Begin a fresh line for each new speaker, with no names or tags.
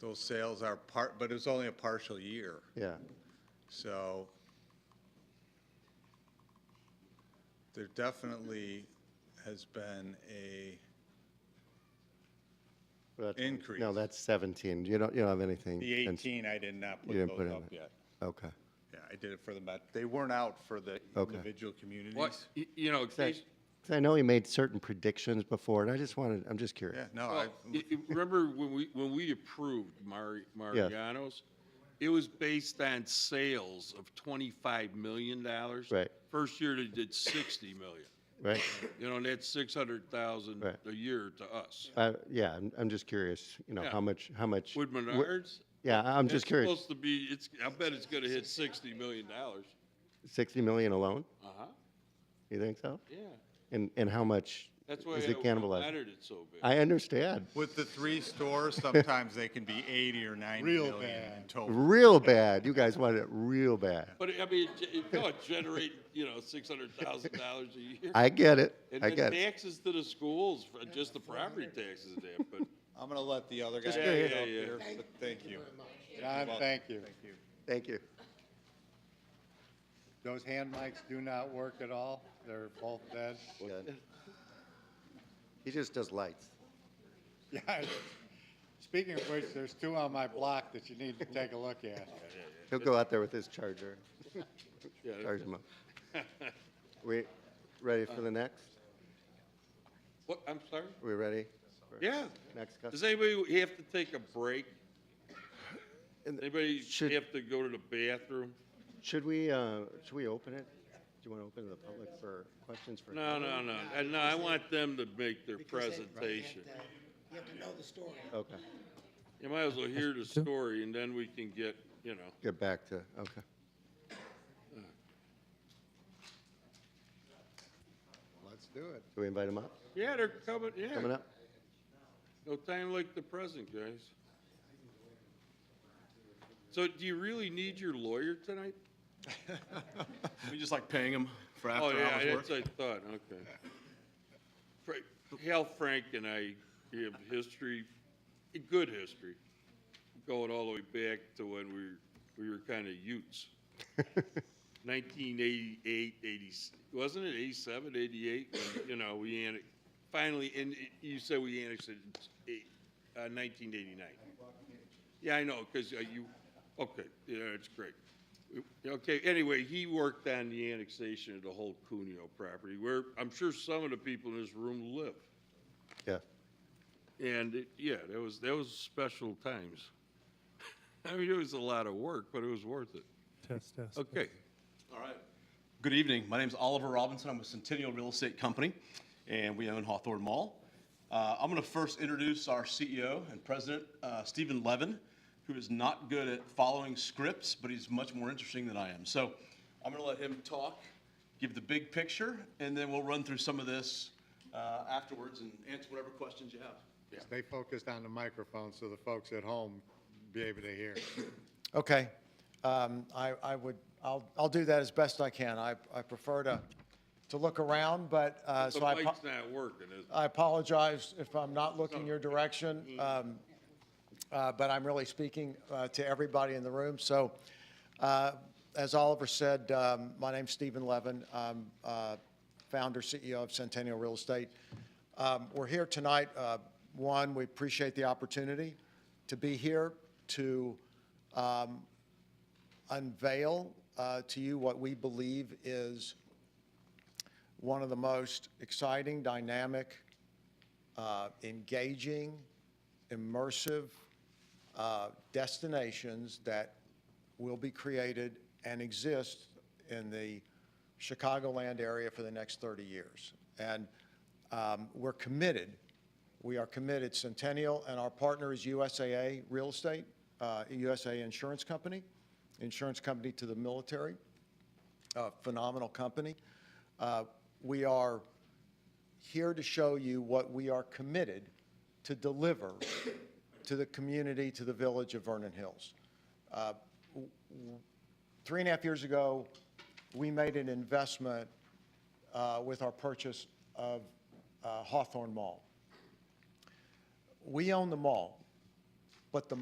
those sales are part, but it was only a partial year,
Yeah,
so there definitely has been a
but that's-
increase.
no, that's 17. You don't, you don't have anything.
The
in-
18, I did not put
You didn't put
those
in
up
it.
yet.
Okay.
Yeah, I did it for the Met. They weren't out for the
Okay.
individual communities.
Well, y- you know,
That- 'cause I know he made certain predictions before, and I just wanted, I'm just
Yeah,
curious.
no,
well,
I,
y- y- remember when we, when we approved Mari- Mariano's? It was based on sales of $25 million.
Right.
First year they did 60 million,
Right?
you know, and that's 600,000
Right.
a year to us.
I- Uh, Yeah, I'm, I'm just curious, you know,
Yeah.
how much, how much.
Would Menards?
Yeah, I- I'm just
it's
curious.
Supposed to be, it's, I bet it's gonna hit 60 million dollars.
60 million alone?
Uh-huh,
You think so?
yeah.
And, and how much
That's why
is it
it
cannibalized?
mattered it's so big.
I understand.
with the three stores, sometimes they can be 80 or 90
Real
million in
bad.
total.
Real bad. You guys wanted it real bad.
But I mean, it- it, no, it generate, you know, $600,000 a year.
I get it.
And
I
then
get it.
taxes to the schools, for just the property taxes and that, but
I'm gonna let the other guy.
Yeah,
get
yeah,
up
yeah.
here, but Thank you.
John, thank you.
Thank you.
Those hand mics do not work at all. They're both dead.
Good. He just does lights.
Yeah. Speaking of which, there's two on my block that you need to take a look at.
He'll go out there with his charger,
yeah.
charge him up. We ready for the next?
What, I'm sorry?
We ready? for
Yeah.
Next
Does
customer?
anybody have to take a break?
And-
Anybody
Should-
have to go to the bathroom?
Should we, uh, should we open it? Do you want to open to the public for questions for?
No, no, no. Uh, No, I want them to make their presentation.
You have to know the story.
Okay,
You might as well hear the story and then we can get, you know.
get back to, okay.
Let's do it.
Do we invite him up?
Yeah, they're coming,
Coming
yeah.
up?
No time like the present, guys. So do you really need your lawyer tonight?
We just like paying them for
Oh,
after
yeah,
hours
that's
work.
what I thought, okay. Fra- Hal Frank and I have history, a good history, going all the way back to when we, were- we were kind of utes. 1988, 80, wasn't it 87, 88, when, you know, we annex, finally, and it- you said we annexed it in eight- uh, 1989. Yeah, I know, because you, okay, yeah, it's great. Okay, anyway, he worked on the annexation of the whole Cuneo property, where I'm sure some of the people in this room live.
Yeah.
And, it- yeah, that was, that was special times. I mean, it was a lot of work, but it was worth it.
Test, test.
Okay.
All right. Good evening. My name's Oliver Robinson. I'm with Centennial Real Estate Company, and we own Hawthorne Mall. Uh, I'm going to first introduce our CEO and president, uh, Stephen Levin, who is not good at following scripts, but he's much more interesting than I am. So I'm going to let him talk, give the big picture, and then we'll run through some of this uh, afterwards and answer whatever questions you have.
Stay focused on the microphone so the folks at home be able to hear.
Okay. Um, I, I would, I'll, I'll do that as best I can. I, I prefer to, to look around, but, uh,
The
so I,
mic's
apo-
not working, is it?
I apologize if I'm not looking your direction. Um, uh, but I'm really speaking, uh, to everybody in the room. So, uh, as Oliver said, um, my name's Stephen Levin. I'm, uh, founder, CEO of Centennial Real Estate. Um, we're here tonight, uh, one, we appreciate the opportunity to be here to, um, unveil uh, to you what we believe is one of the most exciting, dynamic, uh, engaging, immersive uh, destinations that will be created and exist in the Chicagoland area for the next 30 years. And um, we're committed, we are committed, Centennial, and our partner is USAA Real Estate, uh, USA Insurance Company, insurance company to the military, a phenomenal company. Uh, We are here to show you what we are committed to deliver to the community, to the village of Vernon Hills. Uh, w- w- Three and a half years ago, we made an investment uh, with our purchase of uh, Hawthorne Mall. We own the mall, but the